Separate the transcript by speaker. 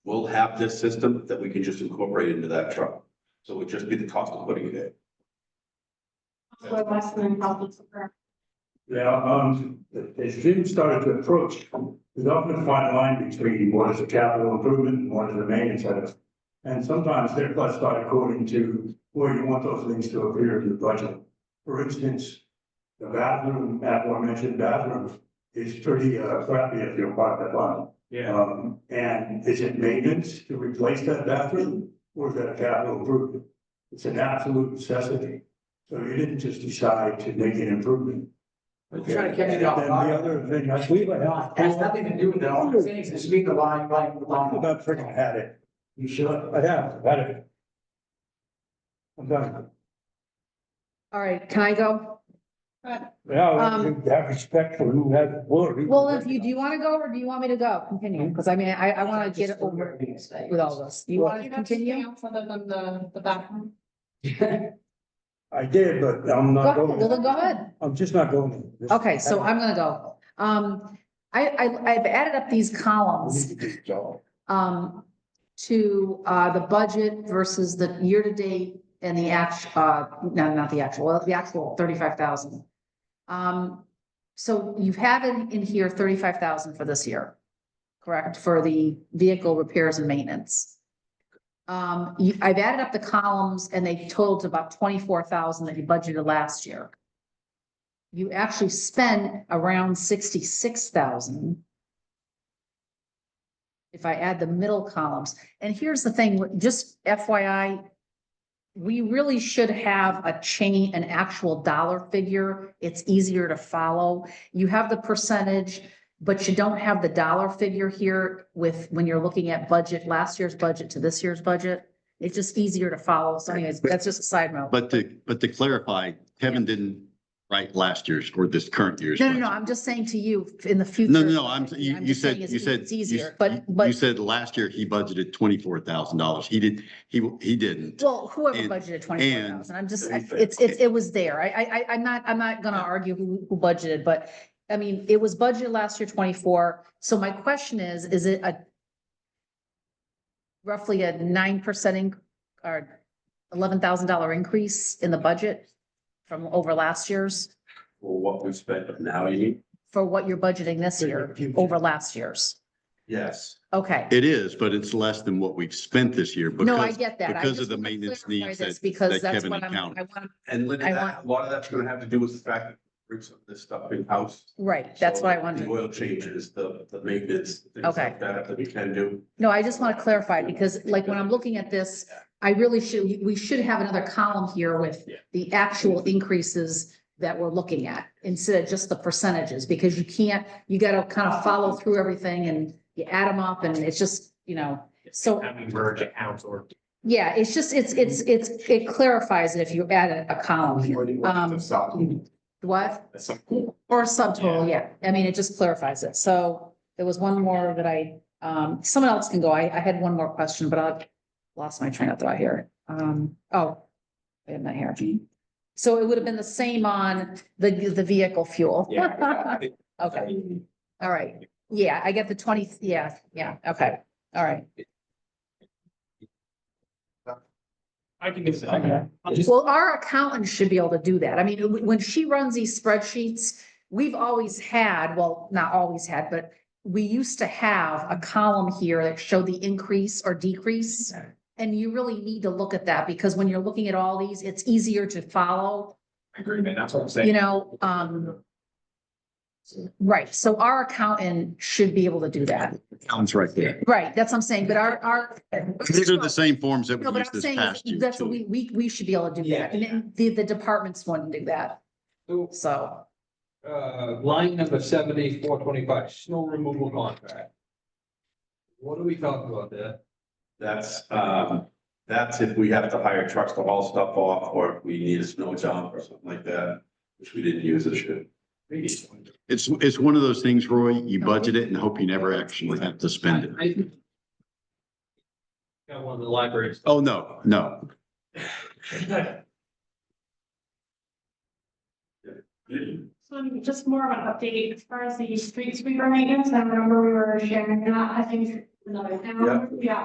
Speaker 1: will have this system that we can just incorporate into that truck. So it would just be the cost of putting it in.
Speaker 2: Where Westland Public Square.
Speaker 3: Yeah, um, as Jim started to approach, there's often a fine line between what is a capital improvement and what is a maintenance item. And sometimes they're classified according to where you want those things to appear in your budget. For instance, the bathroom, that one mentioned bathroom, is pretty uh, crappy if you're part of that line.
Speaker 4: Yeah,
Speaker 3: Um, and is it maintenance to replace that bathroom, or is that a capital improvement? It's an absolute necessity, so you didn't just decide to make an improvement.
Speaker 4: I'm trying to catch
Speaker 3: And
Speaker 4: it
Speaker 3: then
Speaker 4: off
Speaker 3: the
Speaker 4: guard.
Speaker 3: other thing, I
Speaker 4: We
Speaker 3: believe
Speaker 4: were
Speaker 3: I
Speaker 4: not, has nothing to do with it, all I'm saying is it's being the line, line,
Speaker 3: talked
Speaker 4: line.
Speaker 3: about freaking had it.
Speaker 4: You should.
Speaker 3: I have, had it. I'm done.
Speaker 5: All right, can I go?
Speaker 3: Now,
Speaker 5: Um,
Speaker 3: have respect for who has worry.
Speaker 5: Well, if you, do you want to go or do you want me to go? Continue, because I mean, I, I want to get it over with all this. You want to continue?
Speaker 2: Other than the, the bathroom.
Speaker 3: I did, but I'm
Speaker 5: Uh, Go
Speaker 3: not
Speaker 5: ahead, well, then
Speaker 3: going,
Speaker 5: go ahead.
Speaker 3: I'm just not going. This-
Speaker 5: Okay, so I'm gonna go. Um, I, I, I've added up these columns um, to, uh, the budget versus the year-to-date and the act, uh, no, not the actual, well, the actual thirty-five thousand. Um, so you have in, in here thirty-five thousand for this year, correct, for the vehicle repairs and maintenance. Um, you, I've added up the columns and they totaled to about twenty-four thousand that you budgeted last year. You actually spent around sixty-six thousand if I add the middle columns. And here's the thing, just FYI, we really should have a chain, an actual dollar figure. It's easier to follow. You have the percentage, but you don't have the dollar figure here with, when you're looking at budget, last year's budget to this year's budget. It's just easier to follow. So anyways, that's just a side note.
Speaker 6: But to, but to clarify, Kevin didn't write last year's or this current year's.
Speaker 5: No, no, no,
Speaker 6: budget.
Speaker 5: I'm just saying to you in the future.
Speaker 6: No, no, no, I'm, you,
Speaker 5: I'm
Speaker 6: you
Speaker 5: just
Speaker 6: said,
Speaker 5: saying it's-
Speaker 6: you said.
Speaker 5: It's
Speaker 6: you-
Speaker 5: easier, but, but.
Speaker 6: You said last year he budgeted twenty-four thousand dollars. He did, he, he didn't.
Speaker 5: Well, whoever
Speaker 6: And-
Speaker 5: budgeted twenty-four thousand, I'm just, I-
Speaker 1: Anything.
Speaker 5: it's, it's, it was there. I, I, I- I'm not, I'm not gonna argue who, who budgeted, but I mean, it was budgeted last year twenty-four, so my question is, is it a roughly a nine percent or eleven thousand dollar increase in the budget from over last year's
Speaker 1: For what we spent now, you mean?
Speaker 5: for what you're budgeting this
Speaker 3: For
Speaker 5: year
Speaker 3: your future.
Speaker 5: over last year's?
Speaker 1: Yes.
Speaker 5: Okay.
Speaker 6: It is, but it's less than what we've spent this year
Speaker 5: No, I
Speaker 6: because,
Speaker 5: get that. I
Speaker 6: because of
Speaker 5: just
Speaker 6: the
Speaker 5: wanna
Speaker 6: maintenance
Speaker 5: clarify
Speaker 6: needs
Speaker 5: this
Speaker 6: that-
Speaker 5: Because
Speaker 6: that
Speaker 5: that's
Speaker 6: Kevin
Speaker 5: what I'm, I want,
Speaker 6: accounted.
Speaker 5: to
Speaker 1: And Linda,
Speaker 5: I
Speaker 1: that, a lot of that's gonna have to do with the fact that we bring some of this stuff in-house.
Speaker 5: right, that's what I
Speaker 1: So
Speaker 5: wanted. to
Speaker 1: The oil changes, the, the maintenance, things
Speaker 5: Okay.
Speaker 1: like that that we can do.
Speaker 5: No, I just want to clarify because like when I'm looking at this, I really should, we should have another column here with
Speaker 1: Yeah.
Speaker 5: the actual increases that we're looking at instead of just the percentages, because you can't, you gotta kind of follow through everything and you add them up and it's just, you know, so,
Speaker 4: Having merge accounts or.
Speaker 5: yeah, it's just, it's, it's, it's, it clarifies it if you add a- a column here. Um, What? Or a subtotal, yeah. I mean, it just clarifies it. So there was one more that I, um, someone else can go. I, I had one more question, but I've lost my train of thought here. Um, oh, I have my hair. So it would have been the same on the, the vehicle fuel. Okay, all right. Yeah, I get the twenty, yeah, yeah, okay, all right.
Speaker 4: I can do
Speaker 5: Okay.
Speaker 4: that. I'll just-
Speaker 5: Well, our accountant should be able to do that. I mean, w- when she runs these spreadsheets, we've always had, well, not always had, but we used to have a column here that showed the increase or decrease. And you really need to look at that because when you're looking at all these, it's easier to follow,
Speaker 4: I agree, man, that's what I'm saying.
Speaker 5: you know, um. Right, so our accountant should be able to do that.
Speaker 6: Alan's right there.
Speaker 5: Right, that's what I'm saying, but our, our.
Speaker 6: These are the same forms that we
Speaker 5: No, but
Speaker 6: used
Speaker 5: I'm
Speaker 6: this
Speaker 5: saying, is
Speaker 6: past year.
Speaker 5: that's what
Speaker 6: too.
Speaker 5: we, we, we should be able to do that, and then the, the departments wouldn't do that,
Speaker 7: So,
Speaker 5: so.
Speaker 7: uh, line number seventy-four twenty-five, snow removal contract. What do we talk about there?
Speaker 1: That's, um, that's if we have to hire trucks to haul stuff off, or if we need a snow dump or something like that, which we didn't use this year.
Speaker 6: It's, it's one of those things, Roy, you
Speaker 5: No.
Speaker 6: budget it and hope you never actually have to spend it.
Speaker 7: Got one of the libraries.
Speaker 6: Oh, no, no.
Speaker 2: So um, just more of an update as far as the street sweeper maintenance, I remember we were sharing that, I think another town, yeah.